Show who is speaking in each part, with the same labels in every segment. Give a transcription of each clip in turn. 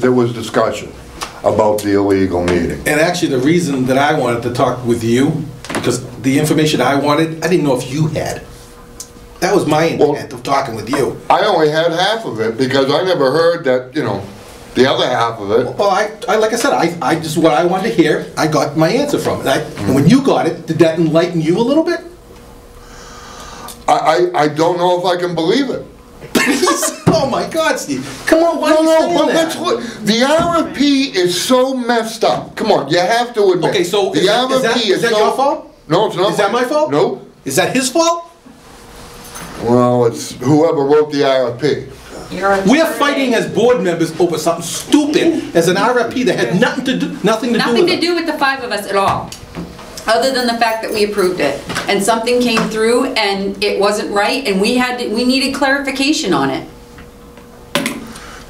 Speaker 1: there was discussion about the illegal meeting.
Speaker 2: And actually, the reason that I wanted to talk with you, because the information I wanted, I didn't know if you had. That was my
Speaker 1: Well-
Speaker 2: intent of talking with you.
Speaker 1: I only had half of it because I never heard that, you know, the other half of it.
Speaker 2: Well, I, I, like I said, I, I just, what I wanted to hear, I got my answer from it. I- And when you got it, did that enlighten you a little bit?
Speaker 1: I, I, I don't know if I can believe it.
Speaker 2: Oh my God, Steve, come on, why
Speaker 1: No,
Speaker 2: are you
Speaker 1: no,
Speaker 2: saying
Speaker 1: but let's
Speaker 2: that?
Speaker 1: look, the RFP is so messed up. Come on, you have to admit.
Speaker 2: Okay, so
Speaker 1: The
Speaker 2: is that- is that-
Speaker 1: RFP
Speaker 2: is that
Speaker 1: so-
Speaker 2: your fault?
Speaker 1: No, it's not.
Speaker 2: Is that my fault?
Speaker 1: No.
Speaker 2: Is that his fault?
Speaker 1: Well, it's whoever wrote the RFP.
Speaker 2: We're fighting as board members over something stupid as an RFP that had nothing to do, nothing to do
Speaker 3: Nothing
Speaker 2: with
Speaker 3: to
Speaker 2: it.
Speaker 3: do with the five of us at all, other than the fact that we approved it. And something came through and it wasn't right and we had, to- we needed clarification on it.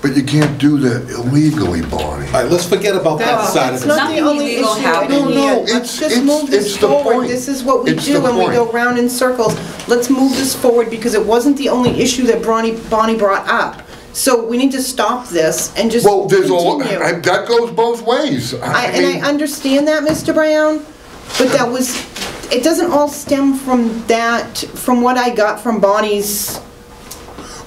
Speaker 1: But you can't do that illegally, Bonnie.
Speaker 2: All right, let's forget about that
Speaker 3: No,
Speaker 2: side of
Speaker 4: It's
Speaker 2: it.
Speaker 4: not the
Speaker 3: Nothing
Speaker 4: only issue.
Speaker 3: illegal happened.
Speaker 4: in
Speaker 1: No, no,
Speaker 4: here.
Speaker 1: it's-
Speaker 4: Let's just
Speaker 1: it's-
Speaker 4: move this
Speaker 1: it's the
Speaker 4: forward.
Speaker 1: point.
Speaker 4: This is what we
Speaker 1: It's
Speaker 4: do
Speaker 1: the
Speaker 4: when we go
Speaker 1: point.
Speaker 4: round in circles. Let's move this forward because it wasn't the only issue that Bonnie, Bonnie brought up. So we need to stop this and just
Speaker 1: Well, there's a, lo-
Speaker 4: continue.
Speaker 1: I- that goes both ways.
Speaker 4: I-
Speaker 1: mean-
Speaker 4: And I understand that, Mr. Brown, but that was, it doesn't all stem from that, from what I got from Bonnie's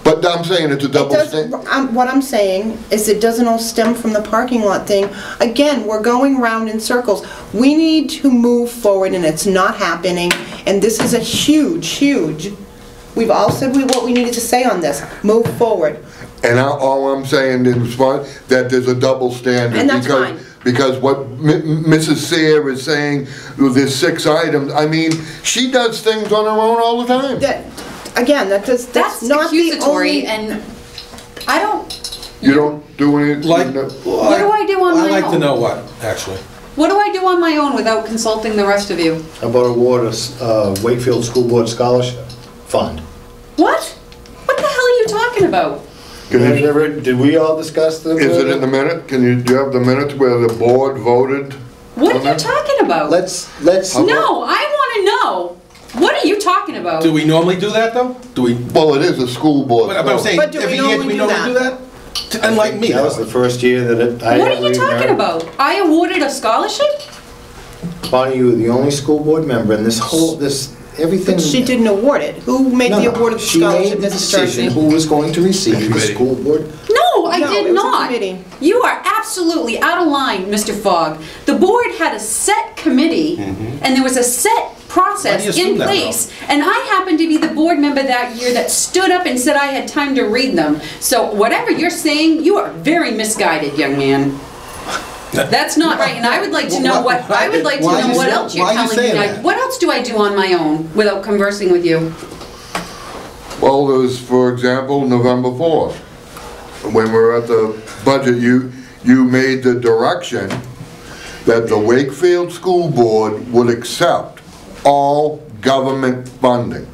Speaker 1: But I'm saying it's a
Speaker 4: It
Speaker 1: double
Speaker 4: does-
Speaker 1: standard.
Speaker 4: I'm- What I'm saying is it doesn't all stem from the parking lot thing. Again, we're going round in circles. We need to move forward and it's not happening. And this is a huge, huge, we've all said we- what we needed to say on this. Move forward.
Speaker 1: And I- all I'm saying in response, that there's a double standard.
Speaker 4: And that's
Speaker 1: because-
Speaker 4: fine.
Speaker 1: Because what M- Mrs. Seer is saying, there's six items, I mean, she does things on her own all the time.
Speaker 4: That, again, that does,
Speaker 3: That's
Speaker 4: that's not the
Speaker 3: accusatory
Speaker 4: only.
Speaker 3: and I don't,
Speaker 1: You don't do any,
Speaker 2: Like,
Speaker 1: no.
Speaker 3: What do I do on my
Speaker 2: I'd like to
Speaker 3: own?
Speaker 2: know what, actually.
Speaker 3: what do I do on my own without consulting the rest of you?
Speaker 5: How about award a s- uh, Wakefield School Board Scholarship Fund?
Speaker 3: What? What the hell are you talking about?
Speaker 1: Can
Speaker 5: Have you
Speaker 1: you-
Speaker 5: ever- Did we all discuss the?
Speaker 1: Is it in the minute? Can you, do you have the minutes where the board voted?
Speaker 3: What
Speaker 1: on
Speaker 3: are you
Speaker 1: that?
Speaker 3: talking about?
Speaker 5: Let's, let's.
Speaker 3: No, I want to know. What are you talking about?
Speaker 2: Do we normally do that, though? Do we,
Speaker 1: Well, it is a school board.
Speaker 2: but but I'm
Speaker 1: vote.
Speaker 2: saying,
Speaker 4: But do we
Speaker 2: every year, do we
Speaker 4: normally
Speaker 2: normally
Speaker 4: do
Speaker 2: do that? To- Unlike me,
Speaker 5: That was the first year that it. I
Speaker 3: What are you
Speaker 5: ever
Speaker 3: talking
Speaker 5: remember.
Speaker 3: about? I awarded a scholarship?
Speaker 5: Bonnie, you were the only school board member in this whole, this, everything.
Speaker 4: But she didn't award it. Who made
Speaker 5: No,
Speaker 4: the
Speaker 5: no,
Speaker 4: award of the
Speaker 5: she made
Speaker 4: scholarship,
Speaker 5: the
Speaker 4: Mrs.
Speaker 5: decision
Speaker 4: Churchy?
Speaker 5: Who was going to receive the
Speaker 2: Committee.
Speaker 5: school board?
Speaker 3: No, I
Speaker 4: No,
Speaker 3: did
Speaker 4: it was a
Speaker 3: not.
Speaker 4: committee.
Speaker 3: You are absolutely out of line, Mr. Fogg. The board had a set committee, and there was a set process
Speaker 2: Mm-hmm. Why do you
Speaker 3: in
Speaker 2: assume that,
Speaker 3: place. And I happened to be the board member that year that stood up and said I had time to read them. So whatever you're saying, you are very misguided, young man. That's not right, and I would like to know what, I would like to
Speaker 2: Why-
Speaker 3: know what else you're
Speaker 2: why you
Speaker 3: telling
Speaker 2: saying
Speaker 3: me.
Speaker 2: that?
Speaker 3: What else do I do on my own without conversing with you?
Speaker 1: Well, there's, for example, November 4th, when we were at the budget, you, you made the direction that the Wakefield School Board would accept all government funding.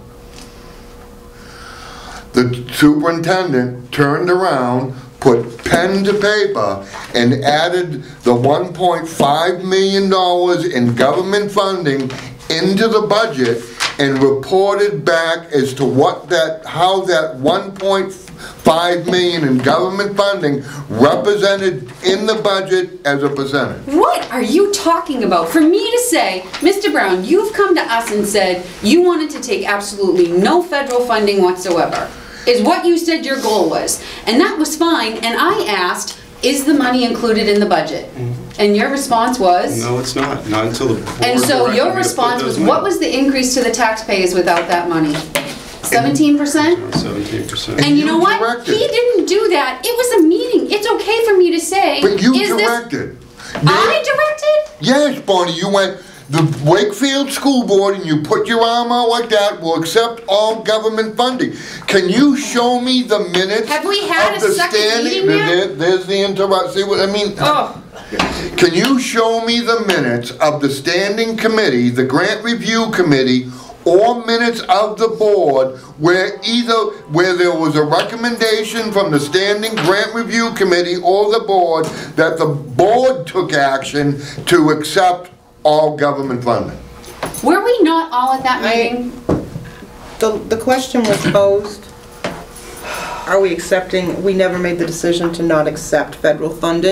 Speaker 1: The superintendent turned around, put pen to paper, and added the $1.5 million in government funding into the budget and reported back as to what that, how that 1.5 million in government funding represented in the budget as a percentage.
Speaker 3: What are you talking about? For me to say, Mr. Brown, you've come to us and said you wanted to take absolutely no federal funding whatsoever, is what you said your goal was. And that was fine, and I asked, is the money included in the budget?
Speaker 1: Mm-hmm.
Speaker 3: And your response was?
Speaker 6: No, it's not, not until the. board
Speaker 3: And so
Speaker 6: directed me to
Speaker 3: your
Speaker 6: put
Speaker 3: response
Speaker 6: those
Speaker 3: was, what
Speaker 6: numbers.
Speaker 3: was the increase to the taxpayers without that money? Seventeen percent?
Speaker 6: Seventeen percent.
Speaker 3: And you know
Speaker 1: you
Speaker 3: what?
Speaker 1: directed
Speaker 3: He
Speaker 1: it.
Speaker 3: didn't do that. It was a meeting. It's okay for me to say,
Speaker 1: But you
Speaker 3: is this?
Speaker 1: directed.
Speaker 3: I directed?
Speaker 1: Yes, Bonnie, you went, the Wakefield School Board, and you put your arm out like that, will accept all government funding. Can you show me the minutes?
Speaker 3: Have we had
Speaker 1: of
Speaker 3: a
Speaker 1: the
Speaker 3: second
Speaker 1: standing-
Speaker 3: meeting yet?
Speaker 1: There- There's the interrupt, see what, I mean,
Speaker 3: Oh.
Speaker 1: can you show me the minutes of the standing committee, the grant review committee, or minutes of the board where either, where there was a recommendation from the standing grant review committee or the board that the board took action to accept all government funding?
Speaker 3: Were we not all at that
Speaker 4: I-
Speaker 3: meeting?
Speaker 4: The, the question was posed. are we accepting, we never made the decision to not accept federal funding.